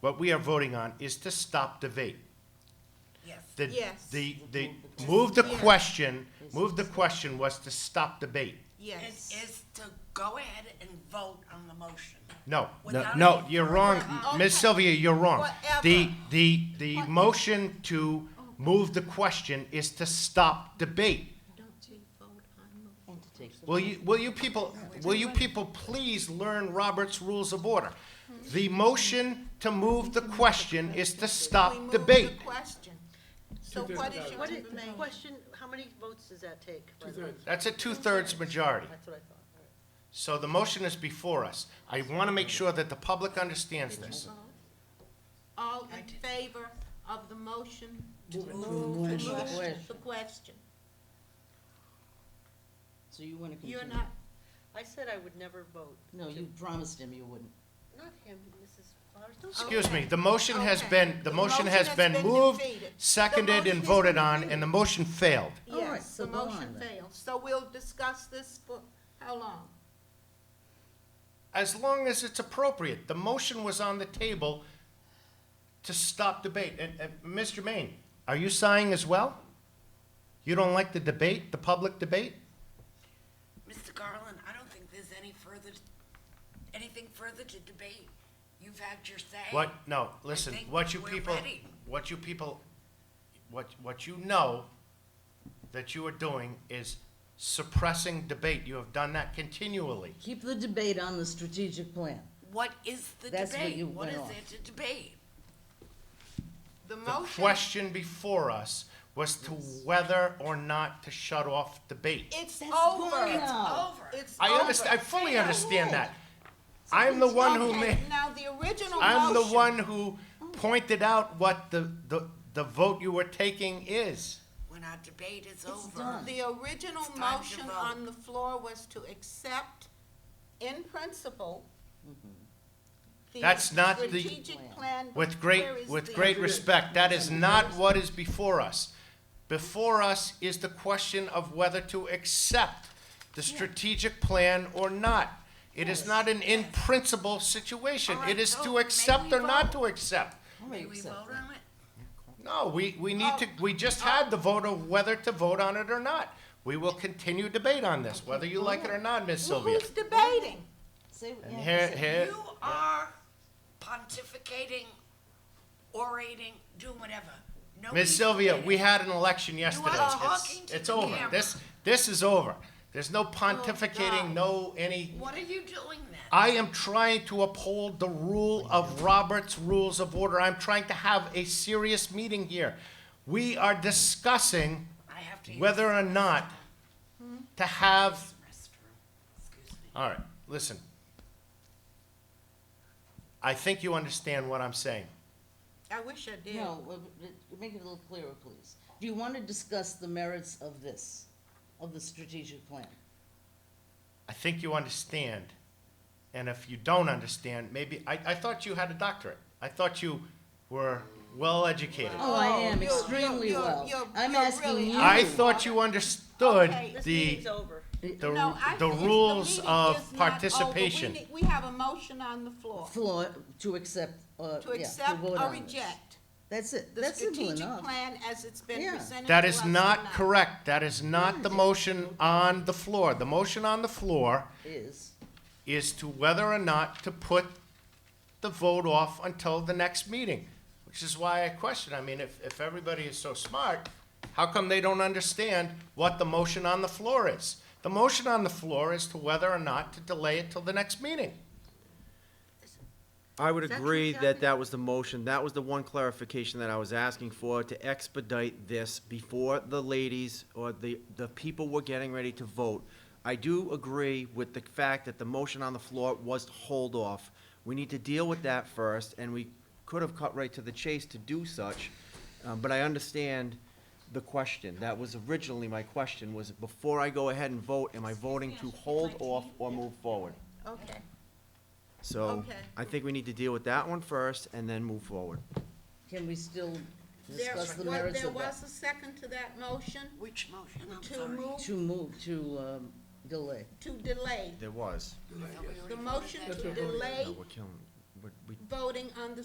What we are voting on is to stop debate. Yes. The, Yes. the, the, move the Yeah. question, move the question was to stop debate. It Yes. is to go ahead and vote on the motion. No, no, Without no, any you're wrong, further- Ms. Sylvia, you're wrong. The, Whatever. Oh. the, the motion to move the question is to stop debate. Will you, will you people, will you people please learn Robert's Rules of Order? The motion to move the question is to We stop move debate. the question. So what is your What is, information? question, how many votes does that take? by the way? That's a two-thirds majority. That's what I thought. all right. So the motion is before us. I want to make sure that the public understands this. All in favor of the motion to Move it. move Move to the move question. the question? So you want to continue? You're not, I said I would never vote. No, you promised him you wouldn't. Not him, Mrs. Flowers. Don't you- Excuse me, the motion has Okay. been, the motion has been moved, defeated. seconded, The motion and has voted been on, defeated. and the motion failed. All right, yes, so the go motion on then. fails. So we'll discuss this for how long? As long as it's appropriate, the motion was on the table to stop debate. And, and, Mr. Maine, are you sighing as well? You don't like the debate, the public debate? Mr. Garland, I don't think there's any further, anything further to debate. You've had your say. What, no, listen, think what you we're people, ready. what you people, what, what you know that you are doing is suppressing debate. You have done that continually. Keep the debate on the strategic plan. What is the That's where debate? you What went is off. there to debate? The The motion, question before us was to whether or not to shut off debate. it's That's over. wrong. It's No. over. It's I understand, I over. fully Yeah. understand that. I'm the one who made, Okay, Now, the original motion. I'm the one who pointed out what the, the, the vote you were taking is. When our debate is over. done. The original It's time to motion vote. on the floor was to accept in principle the That's not the- strategic plan. but With great, where is with the- great respect, that is not what is before us. Before us is the question of whether to accept the strategic plan or not. It is not an in-principle situation. All right, It is vote. to May accept we or not vote? to accept. All right, May we except vote that. on it? No, we, we Oh. need to, we just had the vote of whether to vote on it or not. We will continue debate on this, whether you like it Oh. or not, Ms. Well, Sylvia. Who's debating? Say- And yeah, here, say- here, You are pontificating, orating, doing whatever. Nobody's Ms. Sylvia, debating. we had an election yesterday. It's- talking to It's the over. camera. Oh, This, this is over. There's no pontificating, God. no any. What are you doing then? I am trying to uphold the rule of Robert's Rules of Order. I'm trying to have a serious meeting here. We are discussing I have to use whether or not Hmm? to have this restroom. Excuse me. All right, listen. I think you understand what I'm saying. I wish I did. No, well, but- make it a little clearer, please. Do you want to discuss the merits of this, of the strategic plan? I think you understand. And if you don't understand, maybe, I, I thought you had a doctorate. I thought you were well educated. Oh, I am you're- you're- extremely you're- well. you're- I'm you're asking really- you. I thought you understood Okay. This the, meeting's over. the, No, I the think the rules meeting is of not over. We participation. need- We have a motion on the floor Floor, to accept, uh, to yeah, to accept vote or on this. reject That's it, the that's simple strategic enough. plan as it's been Yeah. presented That to is us not tonight. correct. That is not the Hmm. motion on the floor. The motion on the floor Is, is to whether or not to put the vote off until the next meeting, which is why I question, I mean, if, if everybody is so smart, how come they don't understand what the motion on the floor is? The motion on the floor is to whether or not to delay it till the next meeting. I would Is that true, agree Kathy? that that was the motion. That was the one clarification that I was asking for, to expedite this before the ladies or the, the people were getting ready to vote. I do agree with the fact that the motion on the floor was to hold off. We need to deal with that first, and we could have cut right to the chase to do such. Um, but I understand the question. That was originally my question, was before I go ahead and vote, am I voting to hold off or move forward? Okay. So Okay. I think we need to deal with that one first and then move forward. can we still There discuss the wa- merits there of that? was a second to that motion Which motion? I'm to sorry. move, To move, to, um, delay. to delay, There was. I thought we already the voted motion that to down. delay No, we're killing, we- we voting on the